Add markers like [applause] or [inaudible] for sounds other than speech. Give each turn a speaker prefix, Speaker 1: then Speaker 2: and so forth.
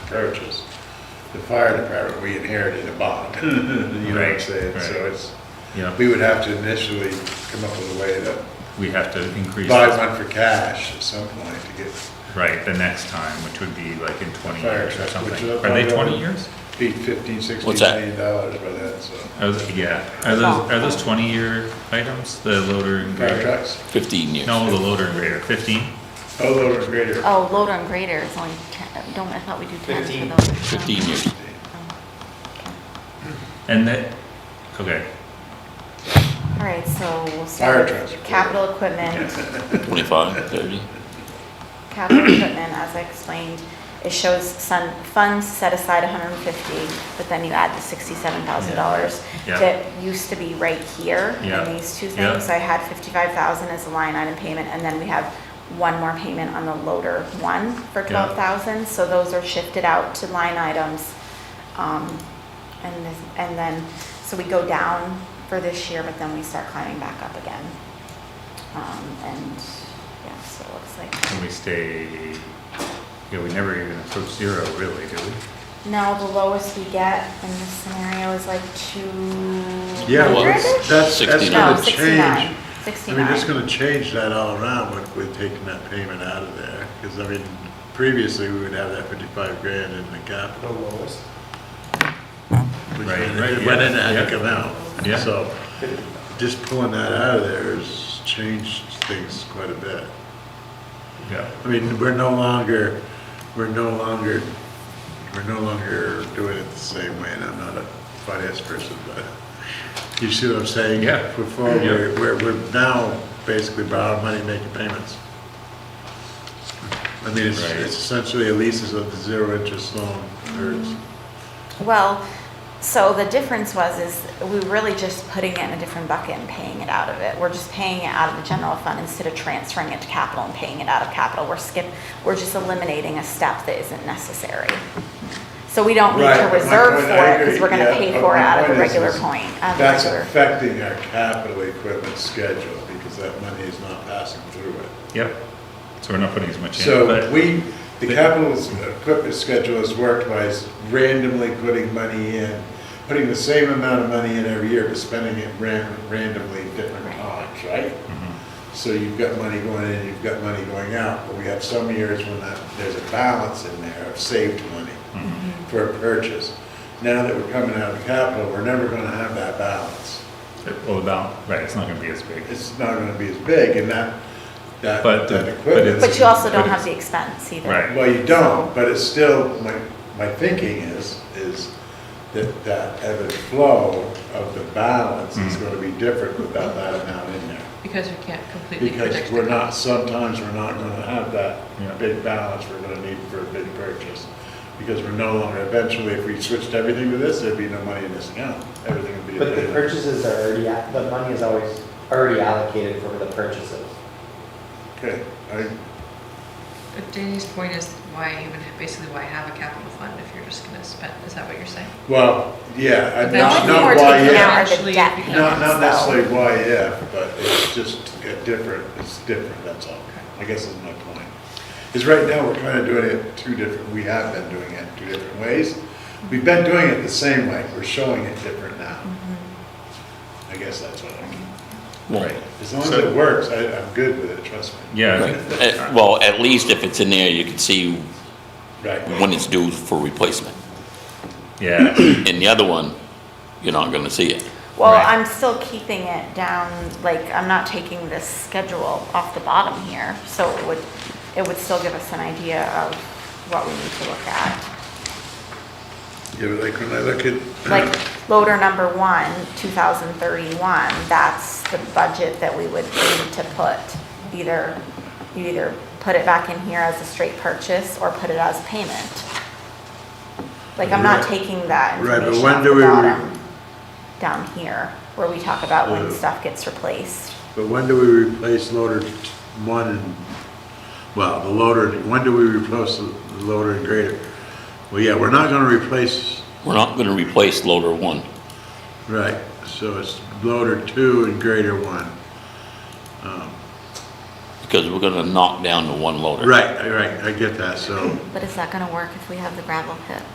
Speaker 1: approaches.
Speaker 2: the fire department, we inherited a bond. [laughs] You know what I'm
Speaker 1: Right,
Speaker 2: saying? So
Speaker 1: right.
Speaker 2: it's,
Speaker 1: You know,
Speaker 2: we would have to initially come up with a way to
Speaker 1: we have to increase,
Speaker 2: buy
Speaker 1: this-
Speaker 2: one for cash at some point to get,
Speaker 1: right, the next time, which would be like in twenty
Speaker 2: Fire
Speaker 1: years or
Speaker 2: truck, which
Speaker 1: something.
Speaker 2: is-
Speaker 1: Are they twenty years?
Speaker 2: be fifteen, sixteen
Speaker 3: What's that?
Speaker 2: million dollars by then, so.
Speaker 1: Are those, yeah, are those, are those twenty-year items, the loader and
Speaker 2: Fire
Speaker 1: grader?
Speaker 2: trucks,
Speaker 3: 15 years.
Speaker 1: No, the loader and grader, fifteen?
Speaker 2: oh, loader's greater.
Speaker 4: Oh, loader and grader is only ten, don't, I thought we do ten
Speaker 5: Fifteen.
Speaker 4: for those.
Speaker 3: 15 years.
Speaker 1: And that, okay,
Speaker 4: All right, so
Speaker 2: Fire
Speaker 4: we'll start
Speaker 2: trucks.
Speaker 4: with capital
Speaker 2: [laughs]
Speaker 4: equipment.
Speaker 3: 25, 30.
Speaker 4: Capital equipment, as I explained, it shows some funds set aside hundred and fifty, but then you add the sixty-seven thousand dollars
Speaker 1: Yeah.
Speaker 4: that used to be right here
Speaker 1: Yeah.
Speaker 4: in these two
Speaker 1: Yeah.
Speaker 4: things. So I had fifty-five thousand as a line item payment, and then we have one more payment on the loader one for
Speaker 1: Yeah.
Speaker 4: twelve thousand. So those are shifted out to line items. Um, and this, and then, so we go down for this year, but then we start climbing back up again. Um, and, yeah, so it looks like.
Speaker 1: and we stay, yeah, we never even approach zero really, do we?
Speaker 4: No, the lowest we get in this scenario is like two
Speaker 2: Yeah, well,
Speaker 4: hundred-ish?
Speaker 2: that's, that's that's
Speaker 3: 69.
Speaker 4: No,
Speaker 2: gonna
Speaker 4: sixty-nine,
Speaker 2: change. I mean,
Speaker 4: sixty-nine.
Speaker 2: it's gonna change that all around with, with taking that payment out of there, because I mean, previously, we would have that fifty-five grand in the
Speaker 5: The
Speaker 2: capital.
Speaker 5: lowest,
Speaker 2: which
Speaker 1: Right,
Speaker 2: went-
Speaker 1: right,
Speaker 2: It went
Speaker 1: yeah,
Speaker 2: in, had
Speaker 1: yeah.
Speaker 2: to come out.
Speaker 1: Yeah.
Speaker 2: So just pulling that out of there has changed things quite a bit.
Speaker 1: Yeah,
Speaker 2: I mean, we're no longer, we're no longer, we're no longer doing it the same way, and I'm not a finance person, but you see what I'm saying?
Speaker 1: Yeah.
Speaker 2: Before,
Speaker 1: Yeah.
Speaker 2: we're, we're we're now basically borrowing money, making payments. I mean, it's
Speaker 1: Right.
Speaker 2: it's essentially a leases of the zero interest loan, or it's
Speaker 4: Well, so the difference was is we were really just putting it in a different bucket and paying it out of it. We're just paying it out of the general fund instead of transferring it to capital and paying it out of capital. We're skip, we're just eliminating a step that isn't necessary. So we don't need
Speaker 2: Right,
Speaker 4: to
Speaker 2: my
Speaker 4: reserve
Speaker 2: point,
Speaker 4: for
Speaker 2: I
Speaker 4: it because
Speaker 2: agree,
Speaker 4: we're gonna
Speaker 2: yeah,
Speaker 4: pay
Speaker 2: but
Speaker 4: for it
Speaker 2: my
Speaker 4: out of the
Speaker 2: point is-
Speaker 4: regular
Speaker 2: is
Speaker 4: point, out of the
Speaker 2: That's
Speaker 4: regular-
Speaker 2: affecting our capital equipment schedule because that money is not passing through it.
Speaker 1: yep, so we're not putting as much in,
Speaker 2: So
Speaker 1: but,
Speaker 2: we, the capital s- equipment schedule is worked by s- randomly putting money in, putting the same amount of money in every year, but spending it ran- randomly at different times, right?
Speaker 1: Mm-hmm.
Speaker 2: So you've got money going in, you've got money going out, but we have some years when that, there's a balance in there of saved money
Speaker 1: Mm-hmm.
Speaker 2: for a purchase. Now that we're coming out of capital, we're never gonna have that balance.
Speaker 1: well, about, right, it's not gonna be as big.
Speaker 2: It's not gonna be as big and that, that,
Speaker 1: But the-
Speaker 2: that
Speaker 1: but
Speaker 2: equipment.
Speaker 1: it's-
Speaker 4: But you also
Speaker 1: But
Speaker 4: don't
Speaker 1: it's-
Speaker 4: have the expense either.
Speaker 1: Right.
Speaker 2: Well, you don't, but it's still, my, my thinking is, is that that ebb and flow of the balance is
Speaker 1: Mm.
Speaker 2: gonna be different without that amount in there.
Speaker 6: Because we can't completely predict.
Speaker 2: Because we're not, sometimes we're not gonna have
Speaker 1: Yeah.
Speaker 2: that big balance we're gonna need for a big purchase. Because we're no longer, eventually, if we switched everything to this, there'd be no money in this account. Everything would be.
Speaker 5: but the
Speaker 2: available.
Speaker 5: purchases are already, a- the money is always already allocated for the purchases.
Speaker 2: Okay, I,
Speaker 6: But Danny's point is why even, basically why have a capital fund if you're just gonna spend, is that what you're saying?
Speaker 2: well, yeah, I-
Speaker 6: But
Speaker 2: not,
Speaker 6: only thing
Speaker 2: not
Speaker 6: we're
Speaker 2: why,
Speaker 6: taking
Speaker 2: yeah.
Speaker 6: out-
Speaker 4: Eventually,
Speaker 6: Not- not
Speaker 2: Not,
Speaker 4: so-
Speaker 2: not necessarily why if, but it's just a different, it's different, that's all. I guess is my point. Is right now, we're kind of doing it two different, we have been doing it two different ways. We've been doing it the same way, we're showing it different now. I guess that's what I mean.
Speaker 3: Well,
Speaker 2: As long as
Speaker 1: So-
Speaker 2: it works, I, I'm good with it, trust me.
Speaker 1: Yeah,
Speaker 3: at- Eh, Well, at least if it's in there, you can see
Speaker 2: Right.
Speaker 3: when it's due for replacement.
Speaker 1: yeah,
Speaker 3: In the other one, you're not gonna see it.
Speaker 4: Well,
Speaker 1: Right.
Speaker 4: I'm still keeping it down, like, I'm not taking this schedule off the bottom here, so it would, it would still give us an idea of what we need to look at.
Speaker 2: Yeah, but like when I look at.
Speaker 4: Like, loader number one, two thousand thirty-one, that's the budget that we would need to put. Either, you either put it back in here as a straight purchase or put it as payment. Like, I'm not
Speaker 2: Right.
Speaker 4: taking that
Speaker 2: Right, but
Speaker 4: information
Speaker 2: when
Speaker 4: off
Speaker 2: do
Speaker 4: the
Speaker 2: we re-
Speaker 4: bottom, down here, where we talk about when
Speaker 2: Yeah.
Speaker 4: stuff gets replaced.
Speaker 2: But when do we replace loader t- one and, well, the loader, when do we replace the loader and grader? Well, yeah, we're not gonna replace,
Speaker 3: We're not gonna replace loader one.
Speaker 2: right, so it's loader two and grader one.
Speaker 3: because we're gonna knock down the one loader.
Speaker 2: Right, right, I get that, so.
Speaker 4: But is that gonna work if we have the gravel pit?